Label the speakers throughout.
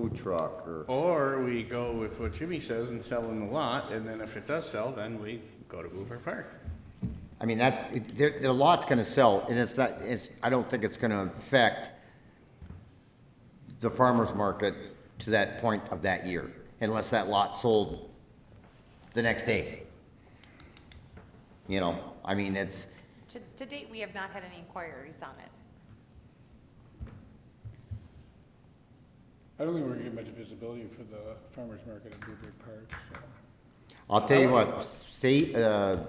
Speaker 1: food truck or,
Speaker 2: Or we go with what Jimmy says and sell in the lot, and then if it does sell, then we go to Bluebird Park.
Speaker 1: I mean, that's, it- the, the lot's gonna sell and it's not, it's, I don't think it's gonna affect the farmer's market to that point of that year, unless that lot sold the next day. You know, I mean, it's,
Speaker 3: To, to date, we have not had any inquiries on it.
Speaker 4: I don't think we're gonna get much visibility for the farmer's market at Bluebird Park, so.
Speaker 1: I'll tell you what, state, uh,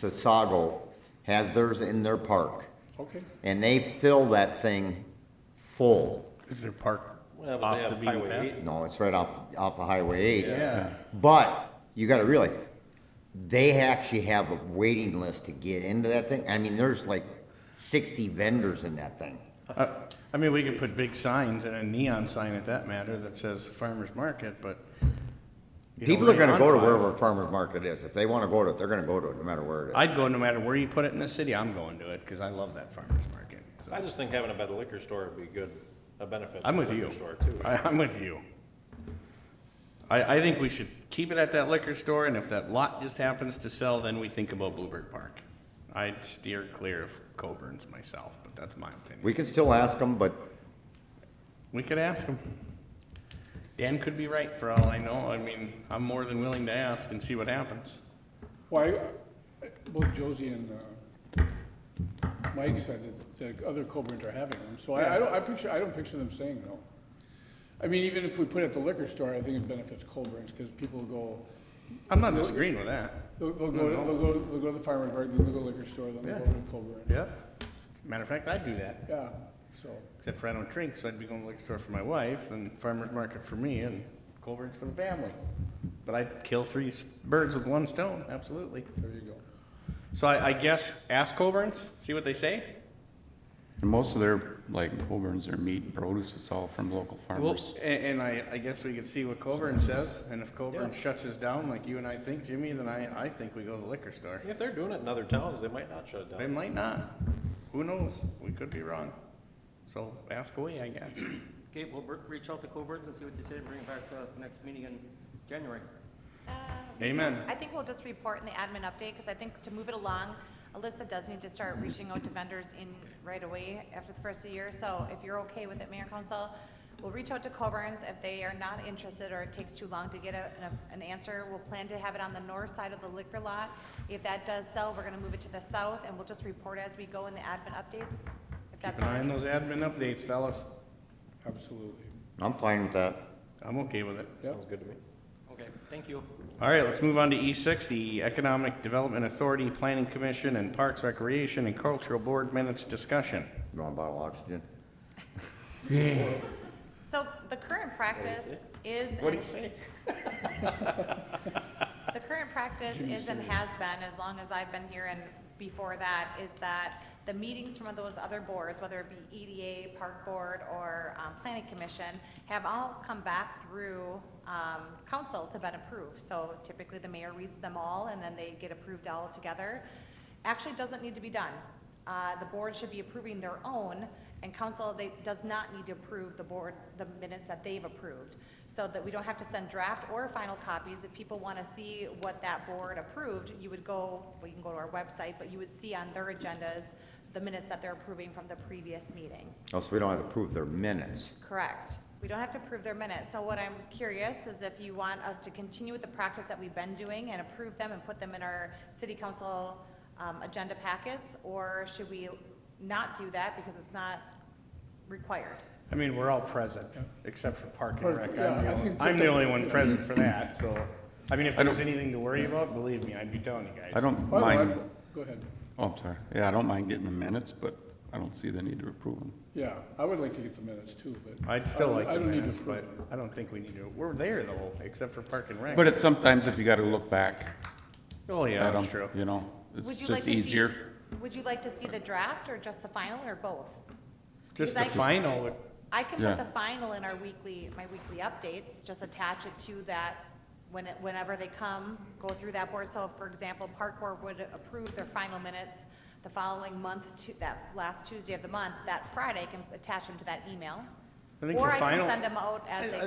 Speaker 1: Sasago has theirs in their park,
Speaker 4: Okay.
Speaker 1: and they fill that thing full.
Speaker 2: Is there park
Speaker 5: Well, but they have Highway 8.
Speaker 1: No, it's right off, off of Highway eight.
Speaker 2: Yeah,
Speaker 1: But you gotta realize, they actually have a waiting list to get into that thing. I mean, there's like sixty vendors in that thing.
Speaker 2: Uh, I mean, we could put big signs and a neon sign at that matter that says farmer's market, but. you don't
Speaker 1: People are
Speaker 2: really
Speaker 1: gonna
Speaker 2: want
Speaker 1: go to
Speaker 2: five.
Speaker 1: wherever farmer's market is. If they wanna go to it, they're gonna go to it, no matter where it is.
Speaker 2: I'd go no matter where you put it in the city, I'm going to it, because I love that farmer's market. so.
Speaker 5: I just think having a better liquor store would be good, a benefit. to
Speaker 2: I'm
Speaker 5: the
Speaker 2: with
Speaker 5: liquor
Speaker 2: you.
Speaker 5: Store too.
Speaker 2: I, I'm with you. I, I think we should keep it at that liquor store, and if that lot just happens to sell, then we think about Bluebird Park. I'd steer clear of Coburn's myself, but that's my opinion.
Speaker 1: We can still ask them, but
Speaker 2: We could ask him. Dan could be right for all I know. I mean, I'm more than willing to ask and see what happens.
Speaker 4: Why, both Josie and uh, Mike said that the other Coburn's are having them, so I, I don't, I picture, I don't picture them saying no. I mean, even if we put it at the liquor store, I think it benefits Coburn's, because people go,
Speaker 2: I'm not disagreeing with that.
Speaker 4: they'll, they'll
Speaker 2: No,
Speaker 4: go,
Speaker 2: no.
Speaker 4: they'll go, they'll go to the farmer's market, then they'll go to the liquor store, then they'll go
Speaker 2: Yeah.
Speaker 4: to Coburn.
Speaker 2: Yep. Matter of fact, I'd do that,
Speaker 4: Yeah, so,
Speaker 2: except for I don't drink, so I'd be going to liquor store for my wife and farmer's market for me and Colburn's for the family. But I'd kill three s- birds with one stone, absolutely.
Speaker 4: there you go.
Speaker 2: So I, I guess ask Colburn's, see what they say.
Speaker 6: And most of their, like, Coburn's, their meat and produce, it's all from local
Speaker 2: Well,
Speaker 6: farmers.
Speaker 2: a- and, I, I guess we could see what Coburn says, and if Coburn shuts us down like you and I think, Jimmy, then I, I think we go to the liquor store.
Speaker 5: If they're doing it in other towns, they might not shut it
Speaker 2: They
Speaker 5: down.
Speaker 2: might not. Who knows? We could be wrong. So ask away, I guess.
Speaker 7: Okay, we'll re- reach out to Coburn's and see what they say, and bring it back to the next meeting in January.
Speaker 2: Amen.
Speaker 3: Uh, I think we'll just report in the admin update, because I think to move it along, Alyssa does need to start reaching out to vendors in right away after the first of the year. So if you're okay with it, Mayor and Council, we'll reach out to Coburn's. If they are not interested or it takes too long to get a, an- an answer, we'll plan to have it on the north side of the liquor lot. If that does sell, we're gonna move it to the south, and we'll just report as we go in the admin updates, if that's
Speaker 2: Keep an
Speaker 3: all
Speaker 2: eye on
Speaker 3: right.
Speaker 2: those admin updates, fellas.
Speaker 4: Absolutely.
Speaker 1: I'm fine with that.
Speaker 2: I'm okay with it.
Speaker 5: Sounds good to me.
Speaker 7: Okay, thank you.
Speaker 2: All right, let's move on to E6, the Economic Development Authority, Planning Commission, and Parks Recreation and Cultural Board minutes discussion.
Speaker 1: You want a bottle of oxygen?
Speaker 3: So the current practice is. and-
Speaker 2: say?
Speaker 3: The current practice is and has been, as long as I've been here and before that, is that the meetings from those other boards, whether it be EDA, Park Board, or um, Planning Commission, have all come back through um, council to been approved. So typically, the mayor reads them all, and then they get approved all together. Actually, doesn't need to be done. Uh, The board should be approving their own, and council, they, does not need to approve the board, the minutes that they've approved, so that we don't have to send draft or final copies. If people want to see what that board approved, you would go, well, you can go to our website, but you would see on their agendas the minutes that they're approving from the previous meeting.
Speaker 1: Oh, so we don't have to prove their minutes.
Speaker 3: Correct. We don't have to approve their minutes. So what I'm curious is if you want us to continue with the practice that we've been doing and approve them and put them in our city council um, agenda packets, or should we not do that because it's not required?
Speaker 2: I mean, we're all present, except for Park and
Speaker 4: Park-
Speaker 2: Rec. I'm
Speaker 4: yeah,
Speaker 2: the
Speaker 4: I
Speaker 2: only-
Speaker 4: think-
Speaker 2: I'm the only one present for that, so, I mean, if
Speaker 6: I
Speaker 2: there was
Speaker 6: don't-
Speaker 2: anything to worry about, believe me, I'd be telling you guys.
Speaker 6: I don't
Speaker 4: Well, I-
Speaker 6: mind,
Speaker 4: Go ahead.
Speaker 6: oh, I'm sorry, yeah, I don't mind getting the minutes, but I don't see the need to approve them.
Speaker 4: Yeah, I would like to get the minutes too, but.
Speaker 2: I'd still
Speaker 4: I-
Speaker 2: like
Speaker 4: I
Speaker 2: the
Speaker 4: don't need to
Speaker 2: minutes, but
Speaker 4: approve them.
Speaker 2: I don't think we need to, we're there though, except for Park and Rec.
Speaker 6: But it's sometimes if you gotta look back
Speaker 2: Oh, yeah,
Speaker 6: at
Speaker 2: that's
Speaker 6: them,
Speaker 2: true.
Speaker 6: you know,
Speaker 3: Would
Speaker 6: it's
Speaker 3: you like
Speaker 6: just
Speaker 3: to see-
Speaker 6: easier.
Speaker 3: Would you like to see the draft or just the final or both?
Speaker 2: Just the
Speaker 3: Because I-
Speaker 2: final, would-
Speaker 3: I can
Speaker 6: Yeah.
Speaker 3: put the final in our weekly, my weekly updates, just attach it to that when, it- whenever they come, go through that board. So for example, Park Board would approve their final minutes the following month to, that last Tuesday of the month. That Friday I can attach them to that email.
Speaker 2: I think
Speaker 3: Or
Speaker 2: the
Speaker 3: I can
Speaker 2: final-
Speaker 3: send them out as they